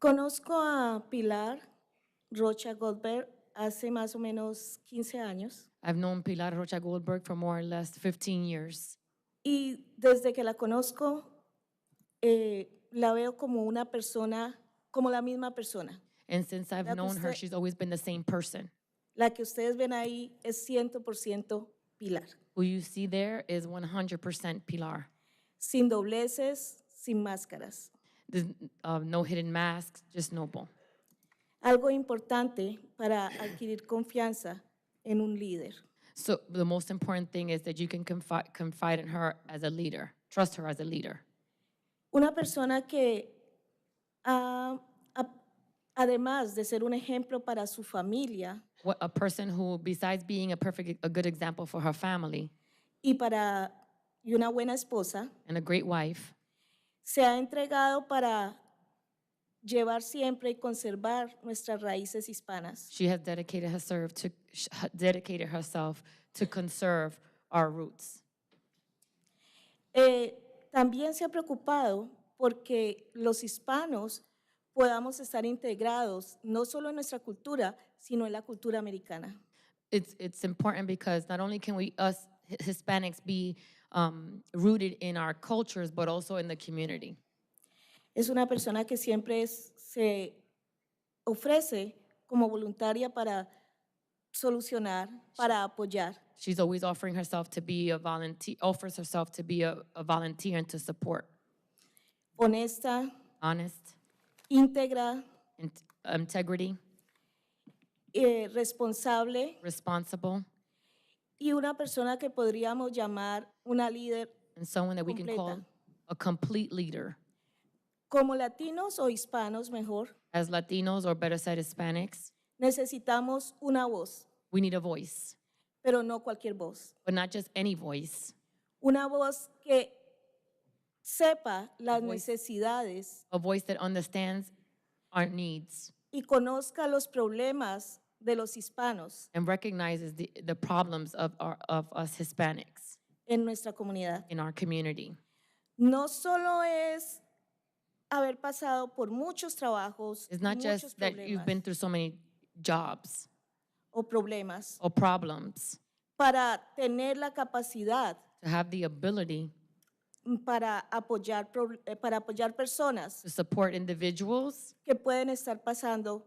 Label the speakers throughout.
Speaker 1: Conozco a Pilar Rocha Goldberg hace más o menos 15 años
Speaker 2: I've known Pilar Rocha Goldberg for more or less 15 years.
Speaker 1: y desde que la conozco eh, la veo como una persona, como la misma persona.
Speaker 2: And since I've
Speaker 1: That was
Speaker 2: known her,
Speaker 1: the-
Speaker 2: she's always been the same person.
Speaker 1: La que ustedes ven ahí es 100% Pilar,
Speaker 2: Who you see there is 100% Pilar.
Speaker 1: sin dobleces, sin máscaras.
Speaker 2: There's uh, no hidden masks, just noble.
Speaker 1: Algo importante para adquirir confianza en un líder.
Speaker 2: So the most important thing is that you can confide, confide in her as a leader, trust her as a leader.
Speaker 1: Una persona que, ah, a- además de ser un ejemplo para su familia
Speaker 2: What a person who, besides being a perfect, a good example for her family
Speaker 1: y para y una buena esposa,
Speaker 2: and a great wife,
Speaker 1: se ha entregado para llevar siempre y conservar nuestras raíces hispanas.
Speaker 2: she has dedicated herself to sh- dedicated herself to conserve our roots.
Speaker 1: Eh, también se ha preocupado porque los hispanos podamos estar integrados no solo en nuestra cultura, sino en la cultura americana.
Speaker 2: it's it's important because not only can we us Hi- Hispanics be um, rooted in our cultures, but also in the community.
Speaker 1: Es una persona que siempre es- se ofrece como voluntaria para solucionar, para apoyar.
Speaker 2: She's always offering herself to be a volunteer, offers herself to be a, a volunteer and to support.
Speaker 1: Honesta,
Speaker 2: Honest,
Speaker 1: íntegra,
Speaker 2: in- integrity,
Speaker 1: eh, responsable
Speaker 2: responsible,
Speaker 1: y una persona que podríamos llamar una líder
Speaker 2: and someone that we can call
Speaker 1: Completa.
Speaker 2: a complete leader.
Speaker 1: como latinos o hispanos mejor.
Speaker 2: As Latinos, or better said, Hispanics,
Speaker 1: Necesitamos una voz,
Speaker 2: we need a voice,
Speaker 1: pero no cualquier voz.
Speaker 2: but not just any voice,
Speaker 1: Una voz que sepa las
Speaker 2: Voice.
Speaker 1: necesidades
Speaker 2: a voice that understands our needs
Speaker 1: y conozca los problemas de los hispanos
Speaker 2: and recognizes the, the problems of, our, of us Hispanics
Speaker 1: en nuestra comunidad.
Speaker 2: in our community.
Speaker 1: No solo es haber pasado por muchos trabajos,
Speaker 2: It's not
Speaker 1: muchos
Speaker 2: just that you've been
Speaker 1: problemas
Speaker 2: through so many jobs
Speaker 1: o problemas
Speaker 2: or problems,
Speaker 1: para tener la capacidad
Speaker 2: to have the ability
Speaker 1: para apoyar, pro- eh, para apoyar personas
Speaker 2: to support individuals.
Speaker 1: que pueden estar pasando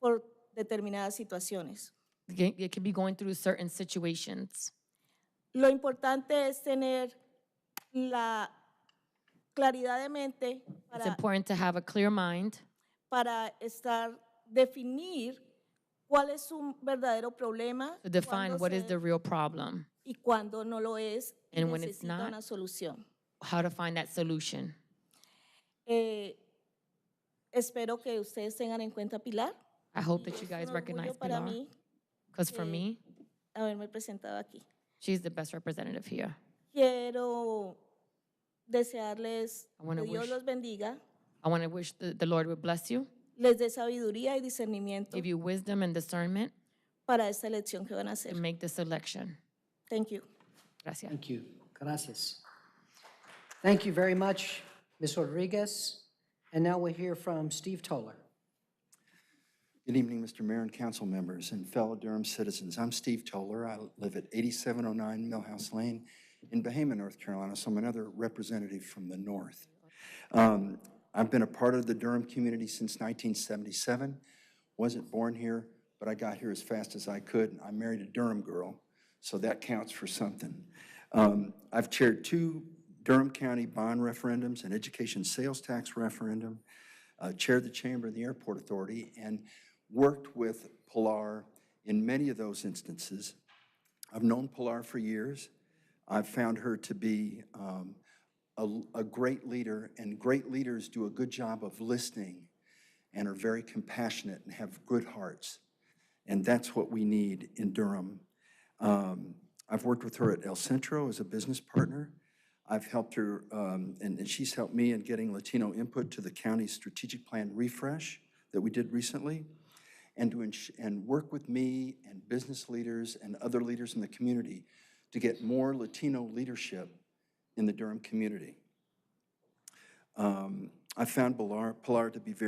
Speaker 1: por determinadas situaciones.
Speaker 2: It can- it can be going through certain situations.
Speaker 1: Lo importante es tener la claridad de mente
Speaker 2: It's
Speaker 1: para,
Speaker 2: important to have a clear mind
Speaker 1: para estar, definir cuál es un verdadero problema
Speaker 2: to define
Speaker 1: cuándo
Speaker 2: what is
Speaker 1: se-
Speaker 2: the real problem,
Speaker 1: y cuándo no lo es y
Speaker 2: And when it's
Speaker 1: necesita
Speaker 2: not.
Speaker 1: una solución.
Speaker 2: how to find that solution.
Speaker 1: Eh, espero que ustedes tengan en cuenta a Pilar.
Speaker 2: I hope that
Speaker 1: Es
Speaker 2: you
Speaker 1: un
Speaker 2: guys
Speaker 1: orgullo
Speaker 2: recognize
Speaker 1: para
Speaker 2: Pilar,
Speaker 1: mí
Speaker 2: because for me,
Speaker 1: haberme presentado aquí.
Speaker 2: she's the best representative here.
Speaker 1: Quiero desearles
Speaker 2: I wanna
Speaker 1: que Dios
Speaker 2: wish-
Speaker 1: los bendiga,
Speaker 2: I want to wish the, the Lord would bless you,
Speaker 1: les dé sabiduría y discernimiento
Speaker 2: give you wisdom and discernment,
Speaker 1: para esta elección que van a hacer.
Speaker 2: and make this election.
Speaker 1: Thank you.
Speaker 2: Gracias.
Speaker 3: Thank you. Gracias. Thank you very much, Ms. Rodriguez. And now we'll hear from Steve Toller.
Speaker 4: Good evening, Mr. Mayor and council members and fellow Durham citizens. I'm Steve Toller. I live at 8709 Millhouse Lane in Bahama, North Carolina, so I'm another representative from the north. Um, I've been a part of the Durham community since 1977. Wasn't born here, but I got here as fast as I could. and I married a Durham girl, so that counts for something. Um, I've chaired two Durham County bond referendums, an education sales tax referendum, uh, chaired the chamber of the Airport Authority, and worked with Pilar in many of those instances. I've known Pilar for years. I've found her to be um, a, a great leader, and great leaders do a good job of listening and are very compassionate and have good hearts. And that's what we need in Durham. Um, I've worked with her at El Centro as a business partner. I've helped her, um, and, and she's helped me in getting Latino input to the county's strategic plan refresh that we did recently, and to ins- and work with me and business leaders and other leaders in the community to get more Latino leadership in the Durham community. Um, I found Pilar, Pilar to be very